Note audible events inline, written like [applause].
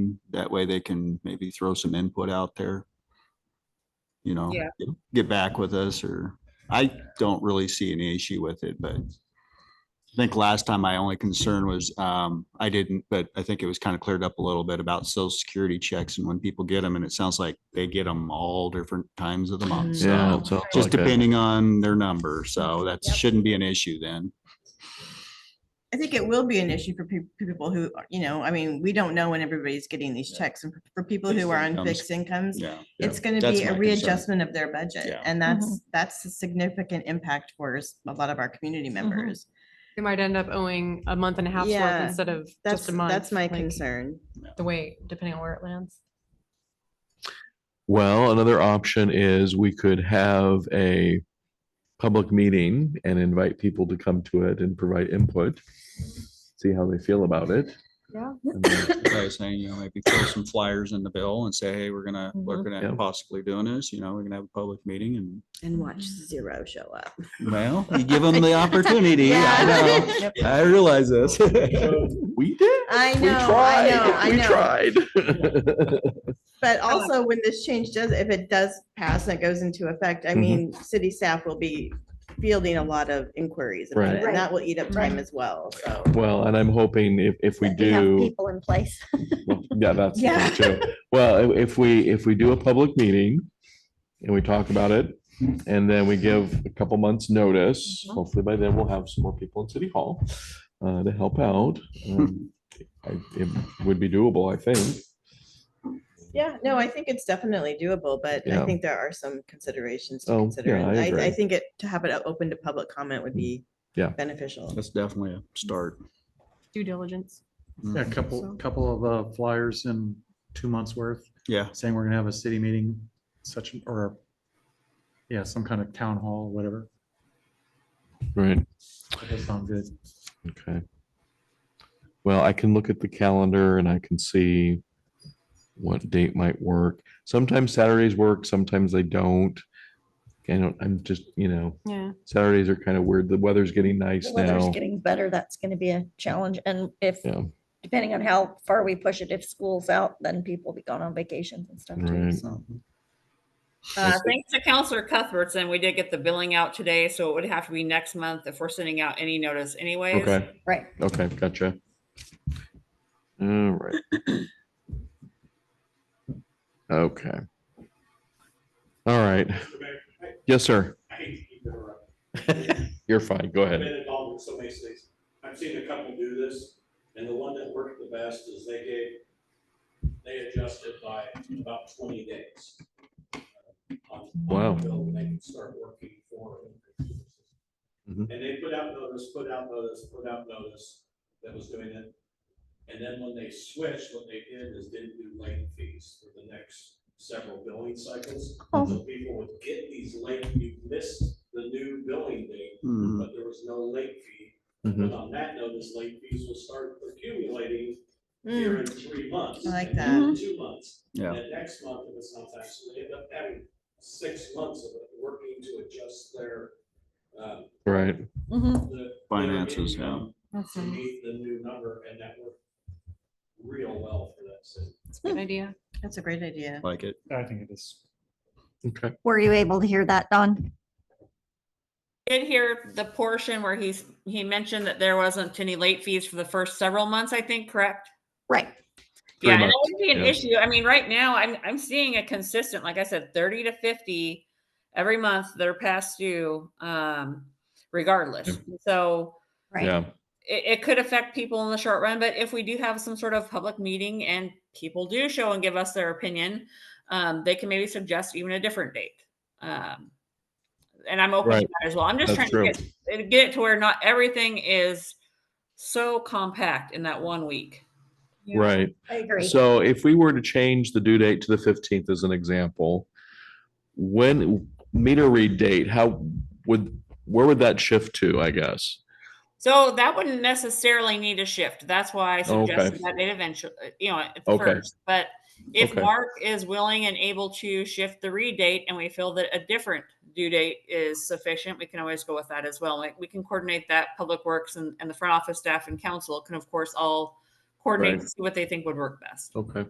and that way they can maybe throw some input out there. You know, Yeah. get- get back with us or, I don't really see any issue with it, but I think last time my only concern was, um, I didn't, but I think it was kind of cleared up a little bit about social security checks and when people get them and it sounds like they get them all different times of the month. Mm-hmm. Yeah, So it's all just like that. depending on their number. So that Yep. shouldn't be an issue then. I think it will be an issue for peop- people who, are- you know, I mean, we don't know when everybody's getting these checks and for- for people who Fixed are on incomes. fixed incomes. Yeah. It's gonna That's be my a concern. readjustment of their budget Yeah. and that's, that's a significant impact for s- a lot of our community members. They might end up owing a month and a half worth Yeah, instead of That's, just a month. that's my like, concern. The way, depending on where it lands. Well, another option is we could have a public meeting and invite people to come to it and provide input. See how they feel about it. Yeah. And then- [laughs] by saying, you know, maybe throw some flyers in the bill and say, hey, we're gonna, we're Mhm. gonna Yeah. possibly doing this, you know, we're gonna have a public meeting and, And watch Mm-hmm. zero show up. well, you give them the opportunity. I know. I realize this. We did. I We know, I know, I know. tried. We tried. [laughs] But also when this change does, if it does pass and it goes into effect, I Mhm. mean, Mm-hmm. city staff will be fielding a lot of inquiries about Right. it and that will eat up time as well. So Well, and I'm hoping if, if we that have do, People in place. well, yeah, that's the Yeah. thing too. Well, i- if we, if we do a public meeting and we talk about it and then we give a couple months notice, Mm-hmm. Mhm. hopefully by then we'll have some more people in City Hall uh, to help out. [laughs] Um, I- It would be doable, I think. Yeah, no, I think it's definitely doable, but I Mm-hmm. Yeah. think there are some considerations to Oh, consider. yeah, I and I, I agree. Mm-hmm. think it, to have it o- open to public comment would be Yeah. beneficial. [laughs] That's definitely a start. Due diligence. Yeah, Mm. a So- couple, couple of uh, flyers in two months worth, Yeah, saying we're gonna have a city meeting such, an- or yeah, some kind of town hall, whatever. Right. That does sound good. Okay. Well, I can look at the calendar and I can see what date might work. Sometimes Saturdays work, sometimes they don't. I don't, I'm just, you know, Yeah. Saturdays are kind of weird. The weather's getting nice The weather's now. getting better. That's going to be a challenge. And if, Yeah, depending on how far we push it, if school's out, then people will be going on vacations and stuff too. Right. So Uh, thanks to Counselor Cuthbertson, we did get the billing out today, so it would have to be next month if we're sending out any notice anyways. okay, Right. okay, gotcha. All right. Okay. All right. Yes, sir. I hate to keep interrupting. You're fine. Go I've ahead. been involved with so many cities. I've seen a couple do this, and the one that worked the best is they gave, they adjusted by about twenty days. uh, on- on the Wow. bill when they could start working for it. Mhm. And they put out notice, put out notice, put out notice that was doing it. And then when they switched, what they did is didn't do late fees for the next several billing cycles. So people would get these late, you missed the new billing date, Mm. but there was no late fee. Mhm. Mm-hmm. But on that notice, late fees will start accumulating Mm, here in three months. I like and then in Two months. Yeah. And then next month, if it's not taxed, so they end up having six months of it working to adjust their, um, Right. Mhm. the. Finances, their income That's To a meet the new number, and that worked real well for that city. good idea. That's a great idea. like it. I think it is. Okay. Were you able to hear that, Don? Did hear the portion where he's, he mentioned that there wasn't any late fees for the first several months, I think, correct? Right. Yeah, Pretty and much, that would be an yeah. issue. I mean, right now, I'm, I'm seeing a consistent, like I said, thirty to fifty every month that are past due, um, regardless. So Right. Yeah. it, it could affect people in the short run, but if we do have some sort of public meeting and people do show and give us their opinion, um, they can maybe suggest even a different date. Um, and I'm open Right. to that as well. I'm just That's trying to get, get it to where not everything is so compact in that one week. Right. I agree. So if we were to change the due date to the fifteenth as an example, when meter read date, how would, where would that shift to, I guess? So that wouldn't necessarily need a shift. That's why I Okay. suggested that it eventually, you know, at Okay. first. But if Okay. Mark is willing and able to shift the read date and we feel that a different due date is sufficient, we can always go with that as well. Like we can coordinate that public works and, and the front office staff and council can of course all coordinate Right. to see what they think would work best. Okay.